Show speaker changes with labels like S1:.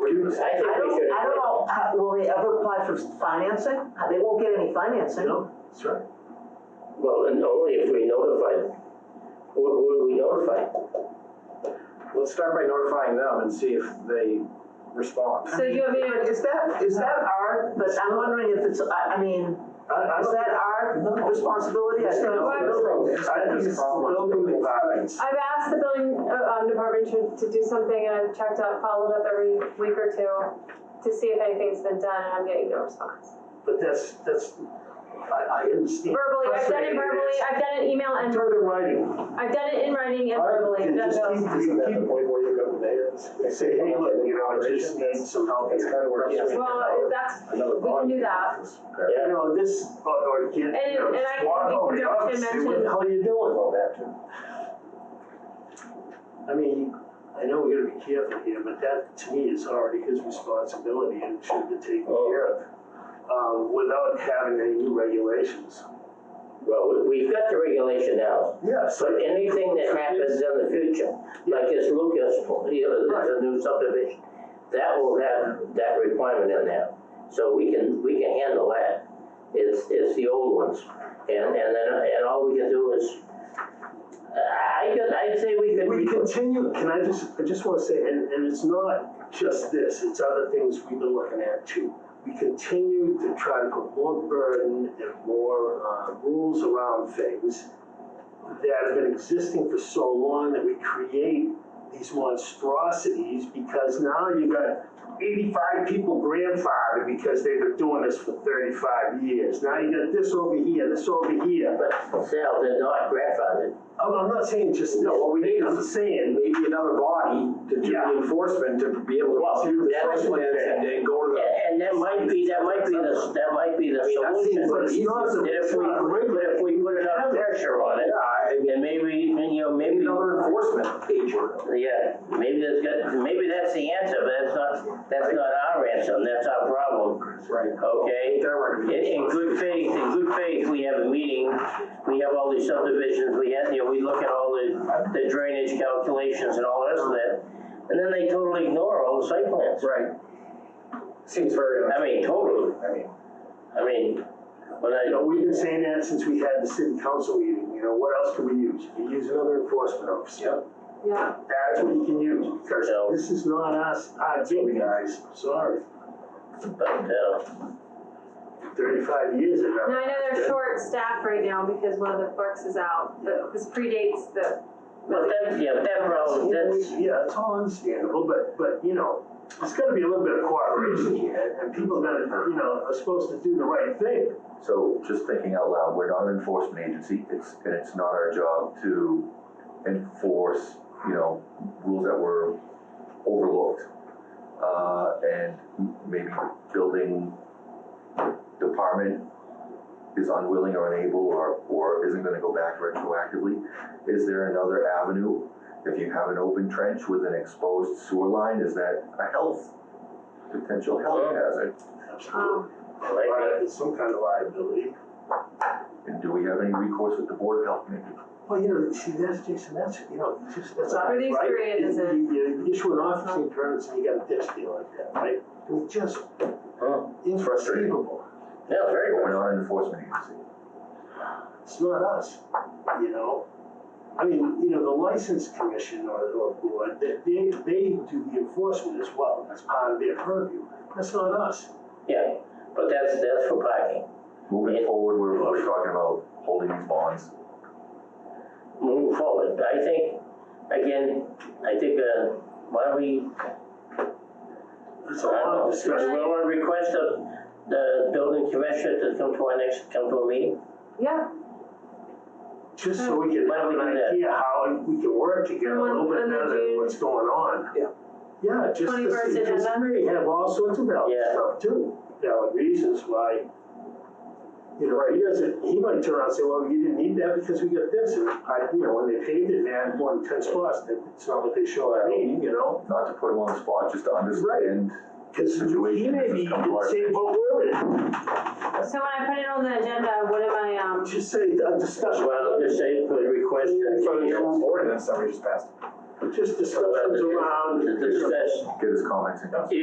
S1: I
S2: I
S1: think we
S2: don't,
S1: could.
S2: I don't know, how- will they ever apply for financing? How- They won't get any financing.
S3: No, that's right.
S1: Well, and only if we notify them. Who, who do we notify?
S3: Let's start by notifying them and see if they respond.
S2: So you, I mean, is that, is that our, but I'm wondering if it's, I, I mean,
S3: I, I
S2: is
S3: don't
S2: that our responsibility? I think
S3: No, I don't think- I think it's problem. Building department.
S4: I've asked the building uh, um, department to, to do something, and I've checked up, followed up every week or two to see if anything's been done, and I'm getting no response.
S3: But that's, that's, I, I understand.
S4: Verbally, I've done
S3: Frustrating
S4: it verbally,
S3: is-
S4: I've done it email and,
S3: Turn it writing.
S4: I've done it in writing and verbally,
S5: It
S4: done
S5: just keep,
S4: those.
S5: isn't that the point where you go to there and say,
S3: Say, hey, look, you know, I just need
S5: operations?
S3: some help.
S5: That's kind of where it's-
S4: Well, that's,
S5: Another
S4: we can do that.
S3: You know, this, or, or get, you
S4: And-
S3: know,
S4: and I-
S3: just walk
S4: we
S3: over,
S4: can
S3: oh,
S4: mention-
S3: see what the hell you doing?
S5: Well, that too.
S3: I mean, I know we gotta be careful here, but that to me is already his responsibility and should be taken
S1: Oh.
S3: care of. Um, without having any new regulations.
S1: Well, we- we've got the regulation now,
S3: Yes.
S1: but anything that happens in the future, like this Lucas, you know, there's a new subdivision, that will have that requirement in there. So we can, we can handle that. It's, it's the old ones. And, and then, and all we can do is, I, I could, I'd say we could.
S3: We continue, can I just, I just wanna say, and, and it's not just this, it's other things we've been looking at too. We continue to try to put more burden and more, uh, rules around things that have been existing for so long that we create these monstrosities because now you've got eighty-five people grandfathered because they've been doing this for thirty-five years. Now you got this over here, this over here.
S1: But Sal, they're not grandfathered.
S6: Oh,
S3: I'm, I'm not saying just, no, what we need is saying,
S6: maybe another body to do
S3: Yeah.
S6: the enforcement to be able
S1: Well,
S6: to do the
S1: that's-
S6: site plans and then go to the.
S1: And, and that might be, that might be the, that might be the
S6: I mean, that
S1: solution.
S6: seems
S1: But
S6: like
S1: if
S6: the
S1: we,
S6: easiest-
S1: but if we put enough pressure on it,
S6: Yeah, I mean,
S1: And maybe, and, you know, maybe,
S6: another enforcement agent.
S1: yeah, maybe that's good, maybe that's the answer, but that's not, that's not our answer, and that's our problem,
S6: Right.
S1: okay?
S6: Their
S1: In,
S6: recommendation.
S1: in good faith, in good faith, we have a meeting, we have all these subdivisions, we have, you know, we look at all the, the drainage calculations and all the rest of that. And then they totally ignore all the site plans.
S6: Right. Seems very,
S1: I mean, totally,
S6: I mean,
S1: I mean, when I,
S3: You know, we've been saying that since we had the city council meeting, you know, what else can we use? You can use another enforcement officer.
S4: Yeah,
S3: That's what you can use, because
S1: Yeah.
S3: this is not us, our baby guys, sorry.
S1: but, uh,
S3: Thirty-five years ago.
S4: now I know they're short staffed right now because one of the clerks is out, but this predates the.
S1: but that, yeah, but that problem, that's.
S3: Yeah, it's all understandable, but, but, you know, it's gotta be a little bit of cooperation here, and people that, you know, are supposed to do the right thing.
S7: So just thinking out loud, we're not an enforcement agency, it's, and it's not our job to enforce, you know, rules that were overlooked. Uh, and m- maybe building department is unwilling or unable or, or isn't gonna go back retroactively. Is there another avenue? If you have an open trench with an exposed sewer line, is that a health, potential health hazard?
S4: Um,
S3: Right, it's some kind of liability.
S7: And do we have any recourse with the Board of Health maybe?
S3: Well, you know, see, that's, Jason, that's, you know, just, that's not right.
S4: For these three, it Uh-huh.
S3: You-
S4: isn't.
S3: You, you issue an officing permit and you got a ditch deal like that, right? I mean, just
S1: Huh.
S3: inconceivable.
S1: Yeah, very
S7: We're
S1: well.
S7: not an enforcement agency.
S3: It's not us, you know? I mean, you know, the license commission or, or board, they, they, they do the enforcement as well. That's part of their purview. That's not us.
S1: Yeah, but that's, that's for parking.
S7: Moving
S1: Yeah.
S7: forward, we're, we're talking about holding these bonds.
S1: Moving forward, I think, again, I think, uh, why don't we,
S3: It's a
S1: I
S3: lot of
S1: don't know,
S3: discussion.
S1: we wanna request the, the building commissioner to come to our next, come to a meeting?
S4: yeah,
S3: Just so we can
S1: Why
S3: have
S1: don't we
S3: an
S1: do that?
S3: idea how we can work together a little
S4: On-
S3: bit
S4: on the
S3: better than
S4: June-
S3: what's going on.
S6: Yeah.
S3: Yeah, just to
S4: 21st
S3: see, because
S4: agenda?
S3: we have all sorts of valid
S1: Yeah.
S3: stuff too, valid reasons why. You know, he doesn't, he might turn around and say, well, you didn't need that because we got this, and I, you know, when they paved it, they had more than ten spots, that it's not what they show at me, you know?
S7: Not to put them on the spot, just to
S3: Right.
S7: understand.
S3: Cause he
S7: Situation
S3: may be,
S7: has come to our
S3: say, well, we're in,
S4: so when I put it on the agenda, what am I, um,
S3: just say, a discussion,
S1: Well, just say, put a request. that-
S6: for the new ordinance that we just passed.
S3: just discussions around.
S1: To discuss
S7: Get his comments in.